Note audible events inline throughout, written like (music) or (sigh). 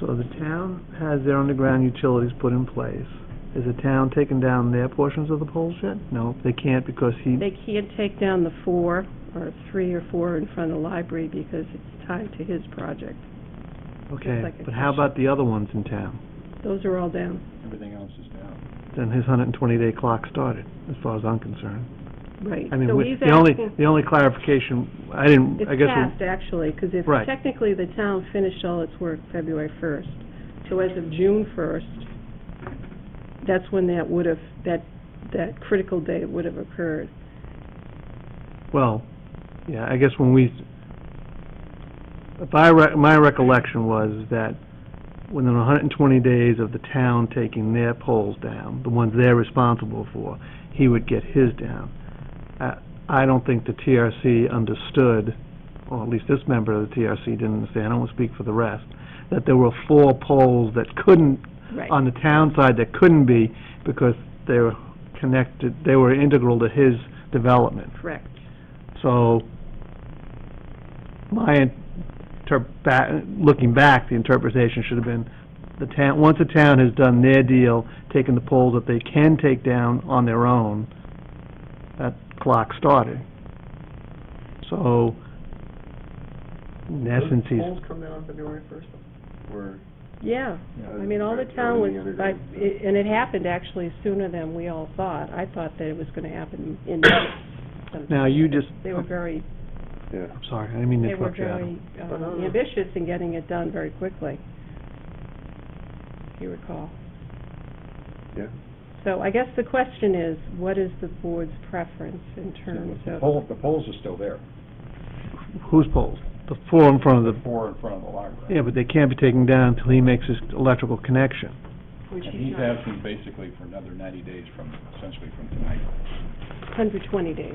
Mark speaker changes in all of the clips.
Speaker 1: So the town has their underground utilities put in place. Is the town taking down their portions of the poles yet? No, they can't because he,
Speaker 2: They can't take down the four, or three or four in front of the library because it's tied to his project.
Speaker 1: okay,
Speaker 2: like a
Speaker 1: but how about the other ones in town?
Speaker 2: Those are all down,
Speaker 3: Everything else is down.
Speaker 1: Then his hundred and twenty day clock started, as far as I'm concerned.
Speaker 2: right.
Speaker 1: I mean,
Speaker 2: So
Speaker 1: we-
Speaker 2: he's
Speaker 1: the only,
Speaker 2: asking-
Speaker 1: the only clarification, I didn't, I
Speaker 2: It's
Speaker 1: guess. we-
Speaker 2: past, actually, because if
Speaker 1: Right.
Speaker 2: technically the town finished all its work February 1st, so as of June 1st, that's when that would have, that, that critical date would have occurred.
Speaker 1: Well, yeah, I guess when we, if I, rec- my recollection was that within 120 days of the town taking their poles down, the ones they're responsible for, he would get his down. I- I don't think the TRC understood, or at least this member of the TRC didn't understand, I don't want to speak for the rest, that there were four poles that couldn't
Speaker 2: Right.
Speaker 1: on the town side that couldn't be because they were connected, they were integral to his development.
Speaker 2: Correct.
Speaker 1: So my, inter- ba- looking back, the interpretation should have been, the town, once a town has done their deal, taken the poles that they can take down on their own, that clock started. So, in essence, he's,
Speaker 4: Polls come down on February first?
Speaker 3: We're,
Speaker 2: Yeah.
Speaker 3: Yeah.
Speaker 2: I mean, all the town was, like, i- and it happened actually sooner than we all thought. I thought that it was going to happen in May.
Speaker 1: now you just,
Speaker 2: They were very,
Speaker 4: Yeah.
Speaker 1: I'm sorry, I didn't mean to
Speaker 2: they were
Speaker 1: interrupt you, Adam.
Speaker 2: very
Speaker 4: No, no,
Speaker 2: um,
Speaker 4: no.
Speaker 2: ambitious in getting it done very quickly, if you recall.
Speaker 4: Yeah.
Speaker 2: So I guess the question is, what is the board's preference in terms
Speaker 3: the
Speaker 2: of,
Speaker 3: pole, the poles are still there.
Speaker 1: Whose poles? The four in front of
Speaker 3: The
Speaker 1: the,
Speaker 3: four in front of the library.
Speaker 1: yeah, but they can't be taken down until he makes his electrical connection.
Speaker 3: And he's asking basically for another ninety days from, essentially from tonight.
Speaker 2: 120 days?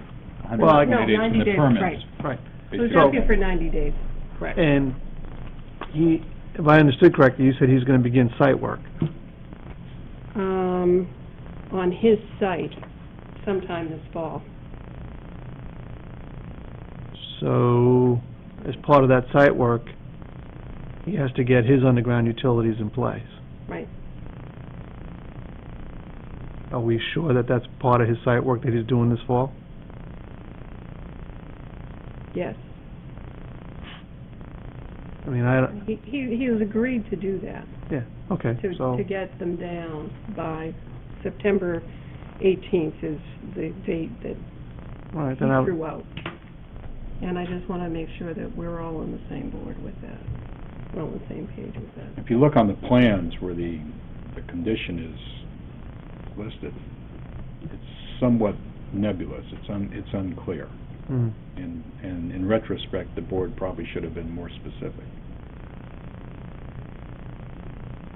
Speaker 1: Well, I-
Speaker 2: No,
Speaker 3: 120
Speaker 2: 90
Speaker 3: days from the
Speaker 2: days,
Speaker 3: permits,
Speaker 2: right.
Speaker 1: Right.
Speaker 2: So he's
Speaker 3: basically.
Speaker 2: asking for 90 days, correct?
Speaker 1: And he, if I understood correctly, you said he's gonna begin site work.
Speaker 2: Um, on his site sometime this fall.
Speaker 1: So, as part of that site work, he has to get his underground utilities in place.
Speaker 2: Right.
Speaker 1: Are we sure that that's part of his site work that he's doing this fall?
Speaker 2: Yes.
Speaker 1: I mean, I, don't-
Speaker 2: He, he he has agreed to do that,
Speaker 1: yeah, okay,
Speaker 2: to,
Speaker 1: so,
Speaker 2: to get them down by September 18th is the date that
Speaker 1: all right,
Speaker 2: he
Speaker 1: then I'll,
Speaker 2: threw out. And I just want to make sure that we're all on the same board with that, we're on the same page with that.
Speaker 3: If you look on the plans where the, the condition is listed, it's somewhat nebulous, it's un, it's unclear.
Speaker 1: mm,
Speaker 3: And, and in retrospect, the board probably should have been more specific.
Speaker 1: mm,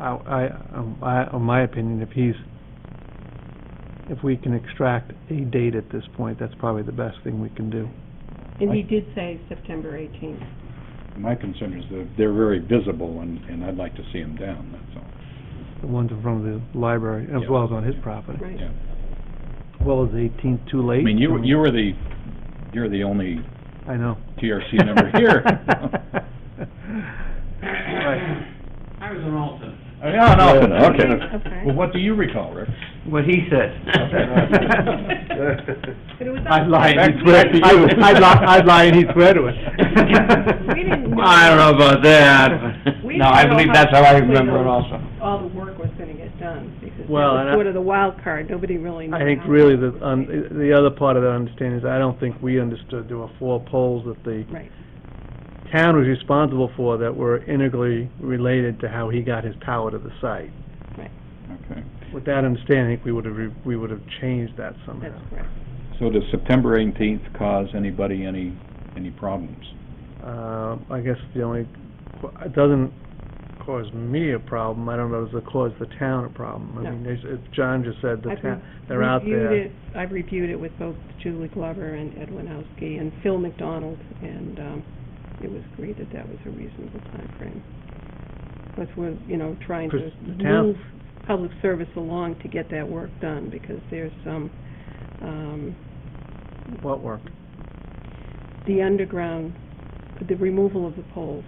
Speaker 1: I, I, um, I, in my opinion, if he's, if we can extract a date at this point, that's probably the best thing we can do.
Speaker 2: And he did say September 18th.
Speaker 3: My concern is that they're very visible, and, and I'd like to see them down, that's all.
Speaker 1: The ones in front of the library, as well as on his property.
Speaker 2: Right.
Speaker 3: Yeah.
Speaker 1: Well, is eighteenth too
Speaker 3: I
Speaker 1: late?
Speaker 3: mean, you, you were the, you're the only
Speaker 1: I know.
Speaker 3: TRC member
Speaker 1: (laughs)
Speaker 3: (laughs) here.
Speaker 1: Right.
Speaker 5: I was an alternate.
Speaker 3: Yeah, no,
Speaker 4: Okay.
Speaker 2: Okay.
Speaker 3: Well, what do you recall, Rick?
Speaker 6: What he said.
Speaker 1: (laughs)
Speaker 2: But it was
Speaker 1: I'd lie and he'd swear,
Speaker 6: Back- back to you.
Speaker 1: I'd I'd lie, I'd lie and he'd swear to it. (laughs)
Speaker 2: We didn't know-
Speaker 6: I don't know about that. but-
Speaker 2: We
Speaker 6: No, I
Speaker 2: didn't know
Speaker 6: believe
Speaker 2: how
Speaker 6: that's how I
Speaker 2: quickly
Speaker 6: remember it
Speaker 2: those-
Speaker 6: also.
Speaker 2: all the work was going to get done, because that
Speaker 1: Well, and
Speaker 2: was
Speaker 1: I-
Speaker 2: sort of the wild card, nobody really knew.
Speaker 1: I
Speaker 2: (laughs)
Speaker 1: think
Speaker 2: how
Speaker 1: really
Speaker 2: long it
Speaker 1: the, um,
Speaker 2: would
Speaker 1: un
Speaker 2: take.
Speaker 1: the other part of that understanding is I don't think we understood there were four poles that the
Speaker 2: Right,
Speaker 1: town was responsible for that were integrally related to how he got his power to the site.
Speaker 3: Okay.
Speaker 1: With that understanding, I think we would have, re- we would have changed that somehow.
Speaker 2: that's correct.
Speaker 3: So does September eighteenth cause anybody any, any problems?
Speaker 1: Uh, I guess the only, it doesn't cause me a problem, I don't know, does it cause the town a problem? I
Speaker 2: No.
Speaker 1: mean, there's- if John just said the
Speaker 2: I've
Speaker 1: town, they're out
Speaker 2: reviewed
Speaker 1: there.
Speaker 2: it- I've reviewed it with both Julie Glover and Ed Winowski and Phil McDonald, and um, it was agreed that that was a reasonable timeframe. Plus, we're, you know, trying to
Speaker 1: Because the town-
Speaker 2: move public service along to get that work done, because there's some, um,
Speaker 1: What work?
Speaker 2: the underground, the removal of the poles